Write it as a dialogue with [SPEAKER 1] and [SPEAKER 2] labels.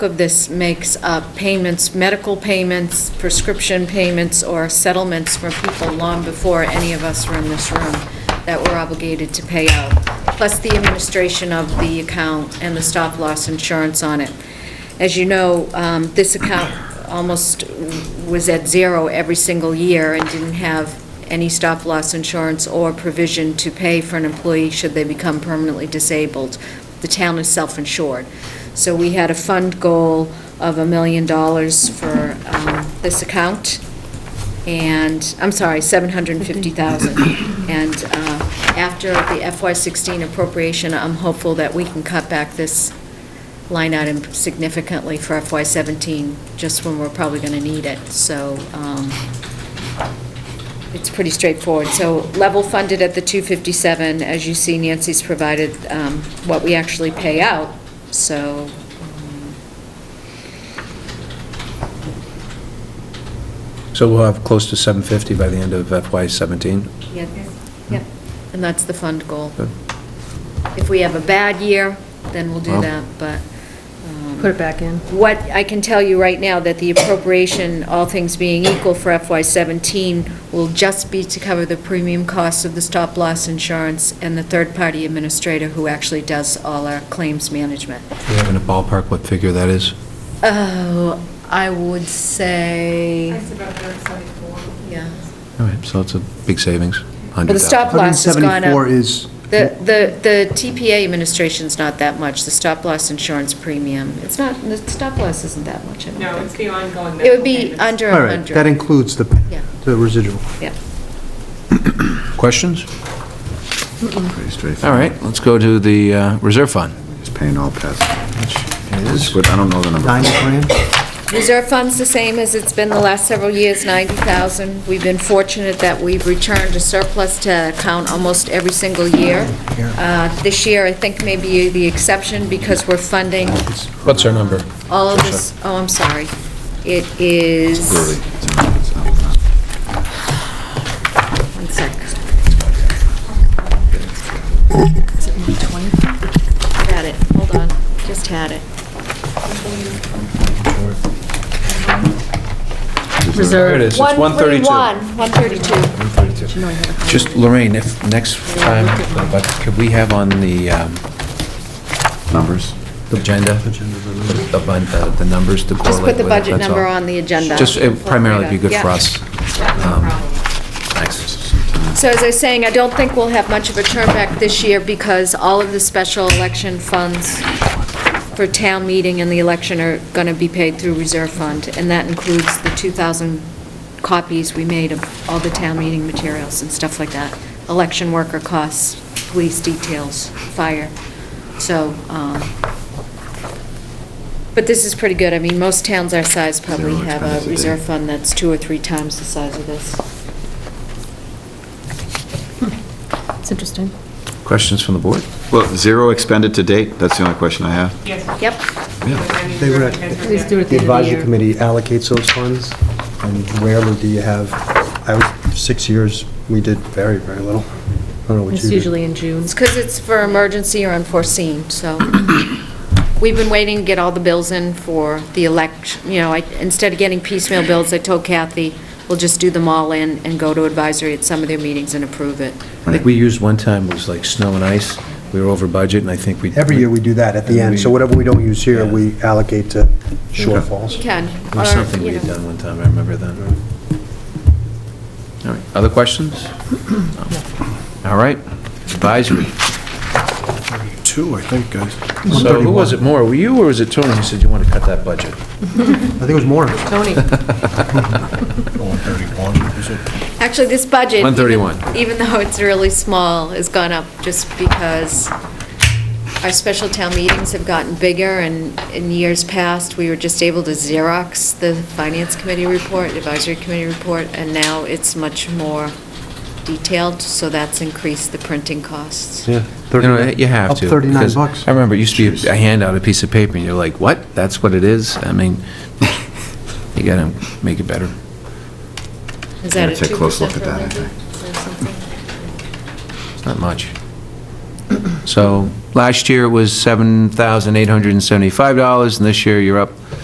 [SPEAKER 1] of this makes up payments, medical payments, prescription payments, or settlements from people long before any of us were in this room that we're obligated to pay out, plus the administration of the account and the stop-loss insurance on it. As you know, um, this account almost was at zero every single year and didn't have any stop-loss insurance or provision to pay for an employee should they become permanently disabled. The town is self-insured. So we had a fund goal of a million dollars for um, this account, and, I'm sorry, 750,000. And uh, after the FY16 appropriation, I'm hopeful that we can cut back this line item significantly for FY17, just when we're probably going to need it. So um, it's pretty straightforward. So level funded at the 257, as you see Nancy's provided um, what we actually pay out, so. um,
[SPEAKER 2] So we'll have close to 750 by the end of FY '17.
[SPEAKER 1] yeah, yeah, And that's the fund goal.
[SPEAKER 2] Good.
[SPEAKER 1] If we have a bad year, then we'll do
[SPEAKER 2] Well.
[SPEAKER 1] that, but. um,
[SPEAKER 3] Put it back in.
[SPEAKER 1] What, I can tell you right now that the appropriation, all things being equal for FY '17, will just be to cover the premium costs of the stop-loss insurance and the third-party administrator who actually does all our claims management.
[SPEAKER 2] Do you have in a ballpark what figure that is?
[SPEAKER 1] Oh, I would say,
[SPEAKER 4] That's about their site for.
[SPEAKER 1] yeah.
[SPEAKER 2] All right, so it's a big savings, 100,000.
[SPEAKER 1] Well, the stop-loss has gone up.
[SPEAKER 5] 174 is,
[SPEAKER 1] The, the, the TPA administration's not that much, the stop-loss insurance premium. It's not, the stop-loss isn't that much, I
[SPEAKER 4] No,
[SPEAKER 1] don't
[SPEAKER 4] it's
[SPEAKER 1] think.
[SPEAKER 4] the ongoing.
[SPEAKER 1] It would be
[SPEAKER 4] medical payments.
[SPEAKER 1] under
[SPEAKER 5] all right,
[SPEAKER 1] 100.
[SPEAKER 5] that includes the,
[SPEAKER 1] Yeah.
[SPEAKER 5] the residual.
[SPEAKER 1] Yeah.
[SPEAKER 2] Questions?
[SPEAKER 6] Pretty
[SPEAKER 2] All
[SPEAKER 6] straightforward.
[SPEAKER 2] right, let's go to the uh, reserve fund.
[SPEAKER 6] Just paying all past.
[SPEAKER 2] It is.
[SPEAKER 6] But I don't know the number.
[SPEAKER 5] Nine grand?
[SPEAKER 1] Reserve fund's the same as it's been the last several years, 90,000. We've been fortunate that we've returned a surplus to account almost every single year. Uh, This year, I think, may be the exception because we're funding
[SPEAKER 2] What's our number?
[SPEAKER 1] all of this, oh, I'm sorry. It is, one sec. Got it, hold on, just had it.
[SPEAKER 2] There it is, it's 132.
[SPEAKER 1] 131, 132.
[SPEAKER 2] Just, Lorraine, if, next time, but could we have on the um,
[SPEAKER 6] Numbers?
[SPEAKER 2] agenda, the bun- uh, the numbers to
[SPEAKER 1] Just put
[SPEAKER 2] correlate
[SPEAKER 1] the
[SPEAKER 2] with it,
[SPEAKER 1] budget
[SPEAKER 2] that's
[SPEAKER 1] number
[SPEAKER 2] all.
[SPEAKER 1] on the agenda.
[SPEAKER 2] Just it primarily be good for
[SPEAKER 1] Yeah.
[SPEAKER 2] us. Um, Thanks.
[SPEAKER 1] So as I was saying, I don't think we'll have much of a turnback this year because all of the special election funds for town meeting and the election are going to be paid through reserve fund, and that includes the 2,000 copies we made of all the town meeting materials and stuff like that, election worker costs, police details, fire. So, um, but this is pretty good. I mean, most towns our size probably
[SPEAKER 6] Zero
[SPEAKER 1] have
[SPEAKER 6] expenses
[SPEAKER 1] a
[SPEAKER 6] a day.
[SPEAKER 1] reserve fund that's two or three times the size of this.
[SPEAKER 3] It's interesting.
[SPEAKER 2] Questions from the board?
[SPEAKER 6] Well, zero expended to date, that's the only question I have.
[SPEAKER 4] Yes.
[SPEAKER 1] Yep.
[SPEAKER 4] Yeah.
[SPEAKER 5] They were at-
[SPEAKER 3] Please do
[SPEAKER 5] The
[SPEAKER 3] it at the end of the year.
[SPEAKER 5] advisory committee allocates those funds, and rarely do you have, I was, six years, we did very, very little. I don't know what you
[SPEAKER 3] It's
[SPEAKER 5] did.
[SPEAKER 3] usually in June.
[SPEAKER 1] It's because it's for emergency or unforeseen, so. We've been waiting to get all the bills in for the election, you know, I, instead of getting piecemeal bills, I told Kathy, we'll just do them all in and go to advisory at some of their meetings and approve it.
[SPEAKER 2] I think we used one time, it was like snow and ice, we were over budget, and I think we...
[SPEAKER 5] Every year we do that at the end, so whatever we don't use here, we allocate to
[SPEAKER 1] You
[SPEAKER 5] shortfalls.
[SPEAKER 1] can.
[SPEAKER 2] It was
[SPEAKER 1] or,
[SPEAKER 2] something
[SPEAKER 1] you
[SPEAKER 2] we had
[SPEAKER 1] know.
[SPEAKER 2] done one time, I remember that. All right, other questions? All right, advisory.
[SPEAKER 7] Two, I think, guys.
[SPEAKER 2] So who was it more, were you or was it Tony who said you want to cut that budget?
[SPEAKER 5] I think it was more.
[SPEAKER 3] Tony,
[SPEAKER 7] 131, is it?
[SPEAKER 1] Actually, this budget.
[SPEAKER 2] 131.
[SPEAKER 1] even- Even though it's really small, has gone up just because our special town meetings have gotten bigger, and in years past, we were just able to Xerox the Finance Committee report, Advisory Committee report, and now it's much more detailed, so that's increased the printing costs.
[SPEAKER 5] Yeah.
[SPEAKER 2] You know, you have to.
[SPEAKER 5] Up 39
[SPEAKER 2] because
[SPEAKER 5] bucks.
[SPEAKER 2] I remember it used to be a handout, a piece of paper, and you're like, what? That's what it is? I mean, you gotta make it better.
[SPEAKER 1] Is that
[SPEAKER 6] Yeah,
[SPEAKER 1] a
[SPEAKER 6] take a
[SPEAKER 1] 2%
[SPEAKER 6] close look at that, I
[SPEAKER 1] or something?
[SPEAKER 2] It's not much. So last year it was $7,875, and this year you're up